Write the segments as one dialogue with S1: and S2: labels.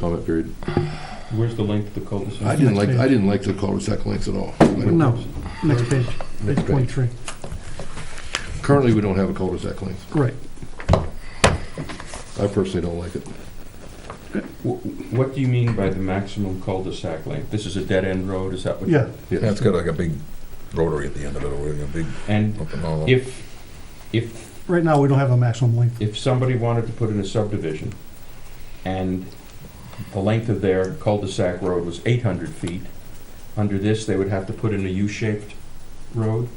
S1: comment period.
S2: Where's the length of the cul-de-sac?
S1: I didn't
S3: Next
S1: like,
S3: page.
S1: I didn't like the cul-de-sac lengths at all.
S3: No, next page, page
S1: Next page.
S3: 23.
S1: Currently, we don't have a cul-de-sac length.
S3: Right.
S1: I personally don't like it.
S2: Wh- What do you mean by the maximum cul-de-sac length? This is a dead-end road, is that what?
S3: Yeah,
S1: Yes.
S4: Yeah, it's got like a big rotary at the end of it, or a big
S2: And
S4: open all.
S2: if, if,
S3: right now, we don't have a maximum length.
S2: if somebody wanted to put in a subdivision and the length of their cul-de-sac road was eight hundred feet, under this, they would have to put in a U-shaped road?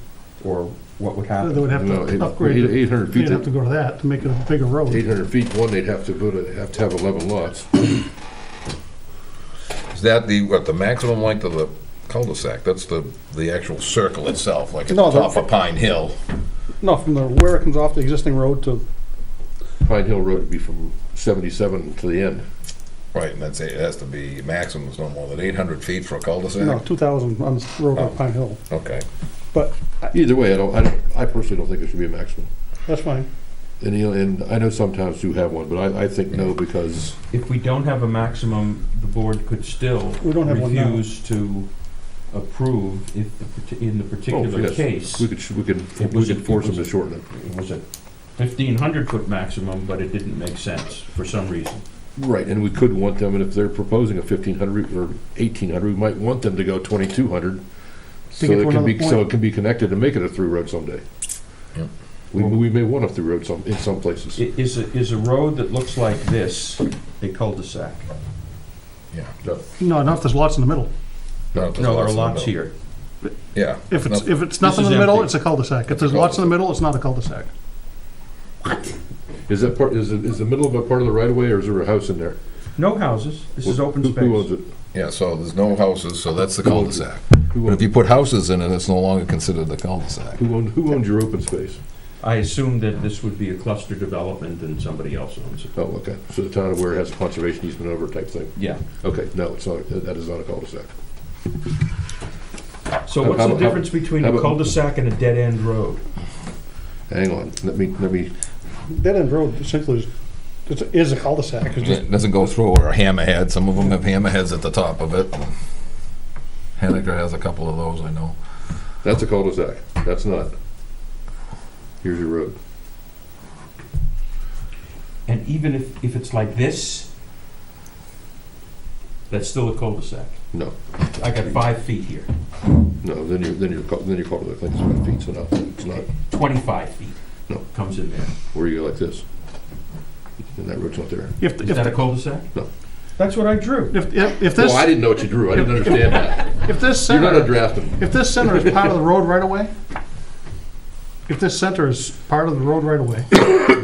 S2: Or what would
S3: They
S2: happen?
S3: would have
S1: No, eight-
S3: to upgrade, it.
S1: Eight hundred
S3: they'd have to
S1: feet,
S3: go to that to make it a bigger
S1: eight
S3: road.
S1: hundred feet, one, they'd have to go to, have to have eleven lots.
S4: Is that the, what, the maximum length of the cul-de-sac? That's the, the actual circle itself, like at the
S5: No, the-
S4: top of Pine Hill.
S5: No, from the, where it comes off the existing road to,
S1: Pine Hill Road would be from seventy-seven to the end.
S4: Right, and that's, it has to be maximum is no more than eight hundred feet for a
S5: no,
S4: cul-de-sac?
S5: two thousand on the road
S4: Oh.
S5: on Pine Hill.
S4: Okay.
S5: But
S1: Either way, I don't, I don't, I personally don't think it should be a maximum.
S5: that's fine.
S1: And, you know, and I know some towns do have one, but I, I think no, because
S2: If we don't have a maximum, the board could still
S5: We don't have one now.
S2: refuse to approve if, the parti- in the particular
S1: yes.
S2: case.
S1: we could, we
S2: It
S1: could, we
S2: was-
S1: could force them to shorten it.
S2: it was a fifteen hundred foot maximum, but it didn't make sense for some reason.
S1: Right, and we could want them, and if they're proposing a fifteen hundred or eighteen hundred, we might want them to go twenty-two hundred. So
S3: get to
S1: it can be,
S3: another
S1: so
S3: point.
S1: it can be connected and make it a through road someday.
S4: Yep.
S1: We, we may want a through road some, in some places.
S2: I- Is, a- is a road that looks like this a cul-de-sac?
S4: Yeah.
S3: No, not if there's lots in the middle.
S4: No, there's
S2: No, there are
S4: in the
S2: lots
S4: middle.
S2: here.
S4: Yeah.
S3: If it's,
S4: No,
S3: if it's nothing
S2: is
S3: in the middle,
S2: empty.
S3: it's a cul-de-sac. If there's lots in the middle, it's not a cul-de-sac.
S1: Is that part, is, it- is the middle of a part of the right of way, or is there a house in there?
S2: No houses, this is open
S1: Who- Who owns
S2: space.
S1: it?
S4: Yeah, so there's no houses, so that's the cul-de-sac.
S1: Who
S4: But if
S1: owns,
S4: you put houses in it, it's no longer considered a cul-de-sac.
S1: who owns, who owns your open space?
S2: I assume that this would be a cluster development and somebody else owns it.
S1: Oh, okay, so the town of Ware has a conservation easement over it type thing.
S2: Yeah,
S1: Okay, no, it's not, that is not a cul-de-sac.
S2: so
S1: How-
S2: what's
S1: how
S2: the
S1: about-
S2: difference between
S1: how
S2: a
S1: about-
S2: cul-de-sac and a dead-end road?
S1: Hang on, let me, let me,
S5: That end road essentially is, it's- is a cul-de-sac, it's just,
S4: It doesn't go through, or a hammerhead, some of them have hammerheads at the top of it. Henniker has a couple of those, I know.
S1: that's a cul-de-sac, that's not. Here's your road.
S2: And even if, if it's like this, that's still a cul-de-sac.
S1: No,
S2: I got five feet here,
S1: no, then you're, then you're, cul- then you're cul-de-sac length is five feet, so no, it's not,
S2: twenty-five feet
S1: No.
S2: comes in there.
S1: where you go like this. And that road's not there.
S3: If,
S2: Is that a
S3: if,
S2: cul-de-sac?
S1: No.
S2: That's what I drew.
S3: if, if- if
S1: Well, I
S3: this,
S1: didn't know what you drew, I didn't understand that.
S3: if this
S1: You're not a
S3: center,
S1: draftsman.
S3: if this center is part of the road right away, if this center is part of the road right away,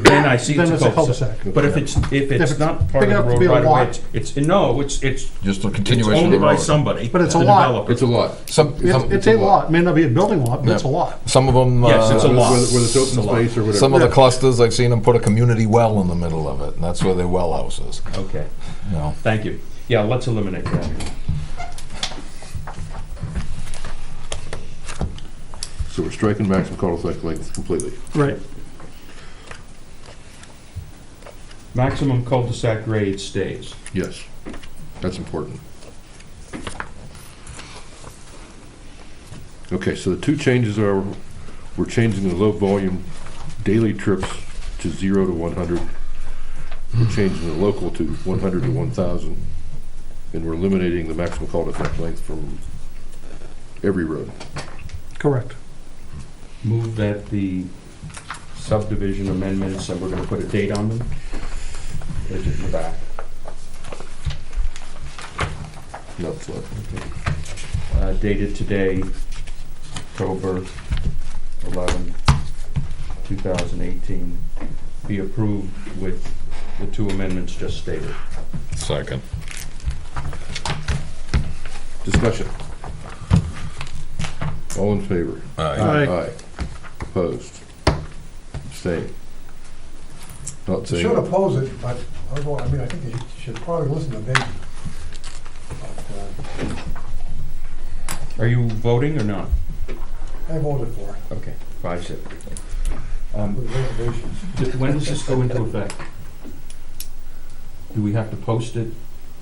S2: then I see
S3: then
S2: it's
S3: it's a
S2: a cul-de-sac.
S3: cul-de-sac.
S2: But if it's, if it's
S3: it's
S2: not part of
S3: big
S2: the
S3: enough to
S2: road
S3: be a
S2: right away,
S3: lot.
S2: it's, it's, no, it's, it's
S4: Just a
S2: it's
S4: continuation of
S2: owned
S4: the
S2: by
S4: road.
S2: somebody.
S3: But it's a
S2: the
S3: lot.
S2: developer.
S1: It's a lot.
S4: Some,
S3: It's,
S4: some,
S3: it's a lot, may not be a building lot, but it's a
S4: Yeah.
S3: lot.
S4: some of them.
S2: Yes, it's a
S4: uh,
S2: lot.
S1: Whether whether it's
S2: It's a
S1: open
S2: lot.
S1: space or
S4: Some
S1: whatever.
S4: of the
S3: Yeah.
S4: clusters, I've seen them put a community well in the middle of it, and that's where their well house is.
S2: Okay,
S4: You know,
S2: thank you. Yeah, let's eliminate that.
S1: So we're striking maximum cul-de-sac length completely.
S3: Right.
S2: Maximum cul-de-sac grade stays.
S1: Yes, that's important. Okay, so the two changes are, we're changing the low volume daily trips to zero to one hundred. We're changing the local to one hundred to one thousand. And we're eliminating the maximum cul-de-sac length from every road.
S3: Correct.
S2: Move that the subdivision amendments, and we're gonna put a date on them. Is it in the back?
S1: No, it's not.
S2: Uh, Dated today, October 11, 2018, be approved with the two amendments just stated.
S4: second.
S1: Discussion. All in favor?
S4: Aye.
S1: Aye. Opposed? Abstained? Not
S6: You should
S1: saying,
S6: oppose it, but, I don't know, I mean, I think you should probably listen to me. But,
S2: Are you voting or not?
S6: uh, I voted for it,
S2: Okay, five zip. Um,
S6: with reservations.
S2: th- When does this go into effect? Do we have to post it